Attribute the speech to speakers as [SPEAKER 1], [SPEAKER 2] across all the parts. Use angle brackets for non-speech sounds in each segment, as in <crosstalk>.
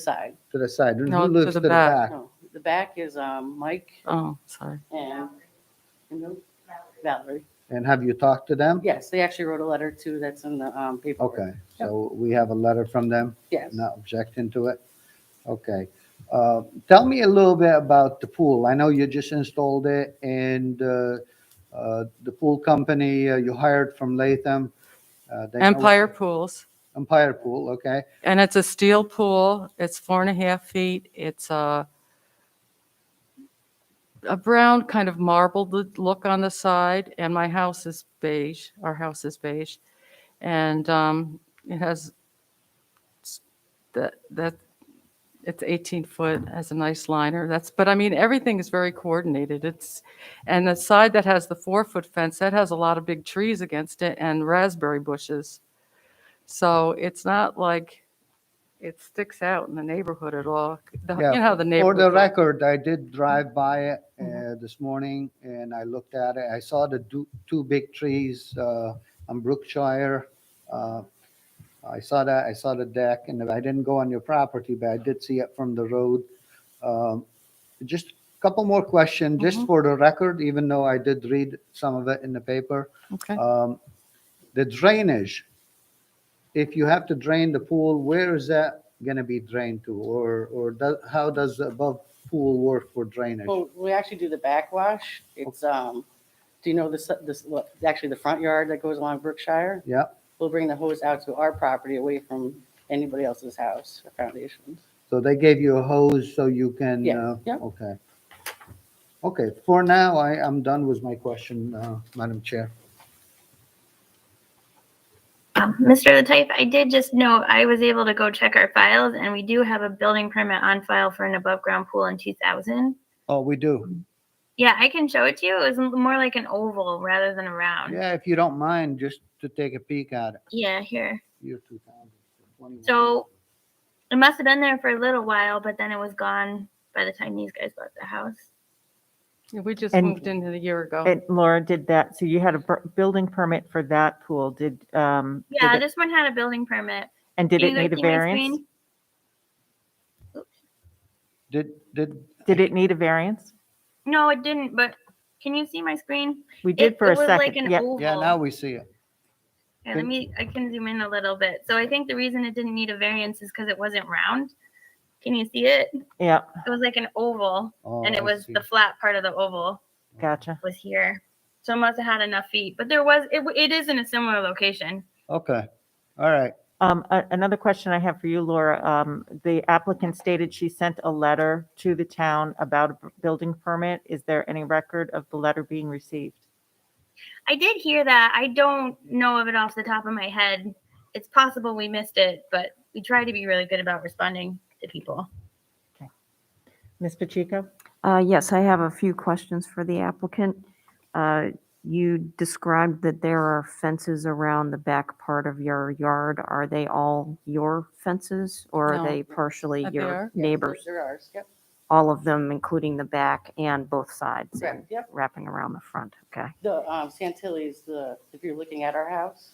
[SPEAKER 1] side,
[SPEAKER 2] to the side. And
[SPEAKER 3] No,
[SPEAKER 2] Who
[SPEAKER 3] to
[SPEAKER 2] lives to
[SPEAKER 3] the
[SPEAKER 2] the
[SPEAKER 3] back.
[SPEAKER 2] back?
[SPEAKER 1] no, the back is um, Mike
[SPEAKER 3] Oh, sorry.
[SPEAKER 1] and and who? Valerie.
[SPEAKER 2] And have you talked to them?
[SPEAKER 1] Yes, they actually wrote a letter too, that's in the um, paperwork.
[SPEAKER 2] Okay, so we have a letter from them,
[SPEAKER 1] Yes.
[SPEAKER 2] not objecting to it? Okay. Uh, Tell me a little bit about the pool. I know you just installed it and uh, uh, the pool company uh, you hired from Latham. uh, they know-
[SPEAKER 3] Empire Pools,
[SPEAKER 2] Empire Pool, okay.
[SPEAKER 3] and it's a steel pool. It's four and a half feet. It's uh, a a brown kind of marbled l- look on the side, and my house is beige. Our house is beige, and um, it has s- that that it's 18 foot has a nice liner. That's but I mean everything is very coordinated. It's and the side that has the four foot fence that has a lot of big trees against it and raspberry bushes. So it's not like it sticks out in the neighborhood at all. The-
[SPEAKER 2] Yeah,
[SPEAKER 3] You know how the
[SPEAKER 2] For
[SPEAKER 3] neighborhood.
[SPEAKER 2] the record, I did drive by it uh, this morning and I looked at it. I saw the du- two big trees uh, on Brookshire. Uh, I saw that, I saw the deck and I didn't go on your property, but I did see it from the road. Um, Just a couple more questions, just for the record, even though I did read some of it in the paper.
[SPEAKER 3] Okay.
[SPEAKER 2] Um, The drainage, if you have to drain the pool, where is that going to be drained to? Or, or do- how does the above pool work for drainage?
[SPEAKER 1] Well, we actually do the backwash. It's, um, do you know this, this, what, actually the front yard that goes along Brookshire?
[SPEAKER 2] Yeah,
[SPEAKER 1] We'll bring the hose out to our property away from anybody else's house or foundations.
[SPEAKER 2] so they gave you a hose so you can?
[SPEAKER 1] Yeah,
[SPEAKER 2] uh,
[SPEAKER 1] yeah.
[SPEAKER 2] Okay. Okay, for now, I, I'm done with my question, uh, Madam Chair.
[SPEAKER 4] Um, Mr. Latife, I did just note I was able to go check our files, and we do have a building permit on file for an above-ground pool in 2000.
[SPEAKER 2] Oh, we do.
[SPEAKER 4] Yeah, I can show it to you. It was more like an oval rather than a round.
[SPEAKER 2] Yeah, if you don't mind, just to take a peek at it,
[SPEAKER 4] Yeah, here.
[SPEAKER 2] year 2021.
[SPEAKER 4] So it must have been there for a little while, but then it was gone by the time these guys left the house.
[SPEAKER 3] We just
[SPEAKER 5] And-
[SPEAKER 3] moved in a year ago.
[SPEAKER 5] And Laura did that, so you had a bur- building permit for that pool, did, um, did
[SPEAKER 4] Yeah,
[SPEAKER 5] it-
[SPEAKER 4] this one had a building permit.
[SPEAKER 5] and did
[SPEAKER 4] Do
[SPEAKER 5] it
[SPEAKER 4] you guys
[SPEAKER 5] need a
[SPEAKER 4] see my
[SPEAKER 5] variance?
[SPEAKER 4] screen?
[SPEAKER 2] Did, did,
[SPEAKER 5] Did it need a variance?
[SPEAKER 4] No, it didn't, but can you see my screen?
[SPEAKER 5] We did
[SPEAKER 4] it,
[SPEAKER 5] for
[SPEAKER 4] it
[SPEAKER 5] a
[SPEAKER 4] was like
[SPEAKER 5] second,
[SPEAKER 4] an
[SPEAKER 5] yeah,
[SPEAKER 4] oval.
[SPEAKER 2] yeah, now we see it.
[SPEAKER 4] Yeah, let
[SPEAKER 2] Then-
[SPEAKER 4] me, I can zoom in a little bit. So I think the reason it didn't need a variance is because it wasn't round. Can you see it?
[SPEAKER 5] yeah,
[SPEAKER 4] It was like an oval
[SPEAKER 2] Oh,
[SPEAKER 4] and
[SPEAKER 2] I
[SPEAKER 4] it was
[SPEAKER 2] see.
[SPEAKER 4] the flat part of the oval
[SPEAKER 5] gotcha.
[SPEAKER 4] was here. So it must have had enough feet, but there was, it, w- it is in a similar location.
[SPEAKER 2] Okay, all right.
[SPEAKER 5] Um, a- another question I have for you, Laura, um, the applicant stated she sent a letter to the town about a b- building permit. Is there any record of the letter being received?
[SPEAKER 4] I did hear that. I don't know of it off the top of my head. It's possible we missed it, but we try to be really good about responding to people.
[SPEAKER 5] Ms. Pacheco?
[SPEAKER 6] Uh, Yes, I have a few questions for the applicant. Uh, You described that there are fences around the back part of your yard. Are they all your fences or
[SPEAKER 3] No.
[SPEAKER 6] are they partially
[SPEAKER 3] Uh, they are.
[SPEAKER 6] your neighbors?
[SPEAKER 1] They're ours, yep,
[SPEAKER 6] All of them, including the back and both sides and
[SPEAKER 1] correct, yep.
[SPEAKER 6] wrapping around the front, okay?
[SPEAKER 1] The um, Santilli's, the, if you're looking at our house,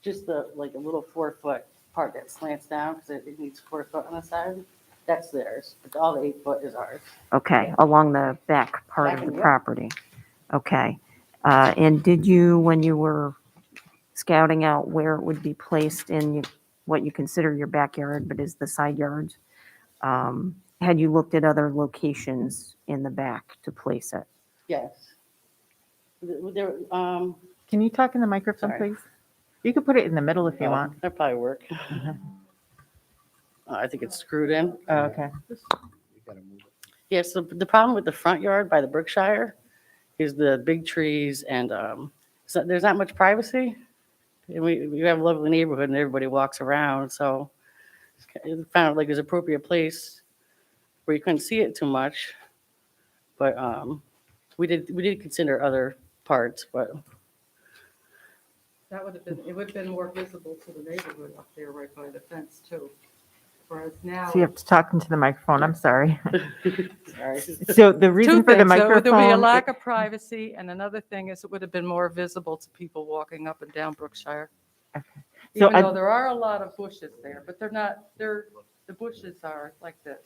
[SPEAKER 1] just the, like a little four foot part that slants down because it it needs four foot on the side, that's theirs. But all the eight foot is ours.
[SPEAKER 6] Okay, along the back part
[SPEAKER 1] Back
[SPEAKER 6] of the
[SPEAKER 1] and-
[SPEAKER 6] property. Okay. Uh, And did you, when you were scouting out where it would be placed in you- what you consider your backyard, but is the side yards, um, had you looked at other locations in the back to place it?
[SPEAKER 1] Yes. Th- There, um,
[SPEAKER 5] Can you talk in the microphone,
[SPEAKER 1] Sorry.
[SPEAKER 5] please? You could put it in the middle if you
[SPEAKER 1] oh,
[SPEAKER 5] want. Mm-hmm.
[SPEAKER 1] That'd probably work. Uh, I think it's screwed in.
[SPEAKER 5] Oh, Okay.
[SPEAKER 2] You gotta move it.
[SPEAKER 1] Yes, the, the problem with the front yard by the Berkshire is the big trees and, um, so there's not much privacy. And we, we have a lovely neighborhood and everybody walks around, so it's ki- it found like there's appropriate place where you couldn't see it too much. But, um, we did, we did consider other parts, but
[SPEAKER 7] That would have been, it would have been more visible to the neighborhood up there right by the fence too. Whereas now,
[SPEAKER 5] So you have to talk into the microphone, I'm sorry. <laughs>
[SPEAKER 1] sorry.
[SPEAKER 5] So the
[SPEAKER 3] Two
[SPEAKER 5] reason for the
[SPEAKER 3] things. So
[SPEAKER 5] microphone.
[SPEAKER 3] There'll be a lack of privacy, and another thing is it would have been more visible to people walking up and down Brookshire.
[SPEAKER 5] Okay. So
[SPEAKER 3] Even
[SPEAKER 5] I-
[SPEAKER 3] though there are a lot of bushes there, but they're not, they're the bushes are like this.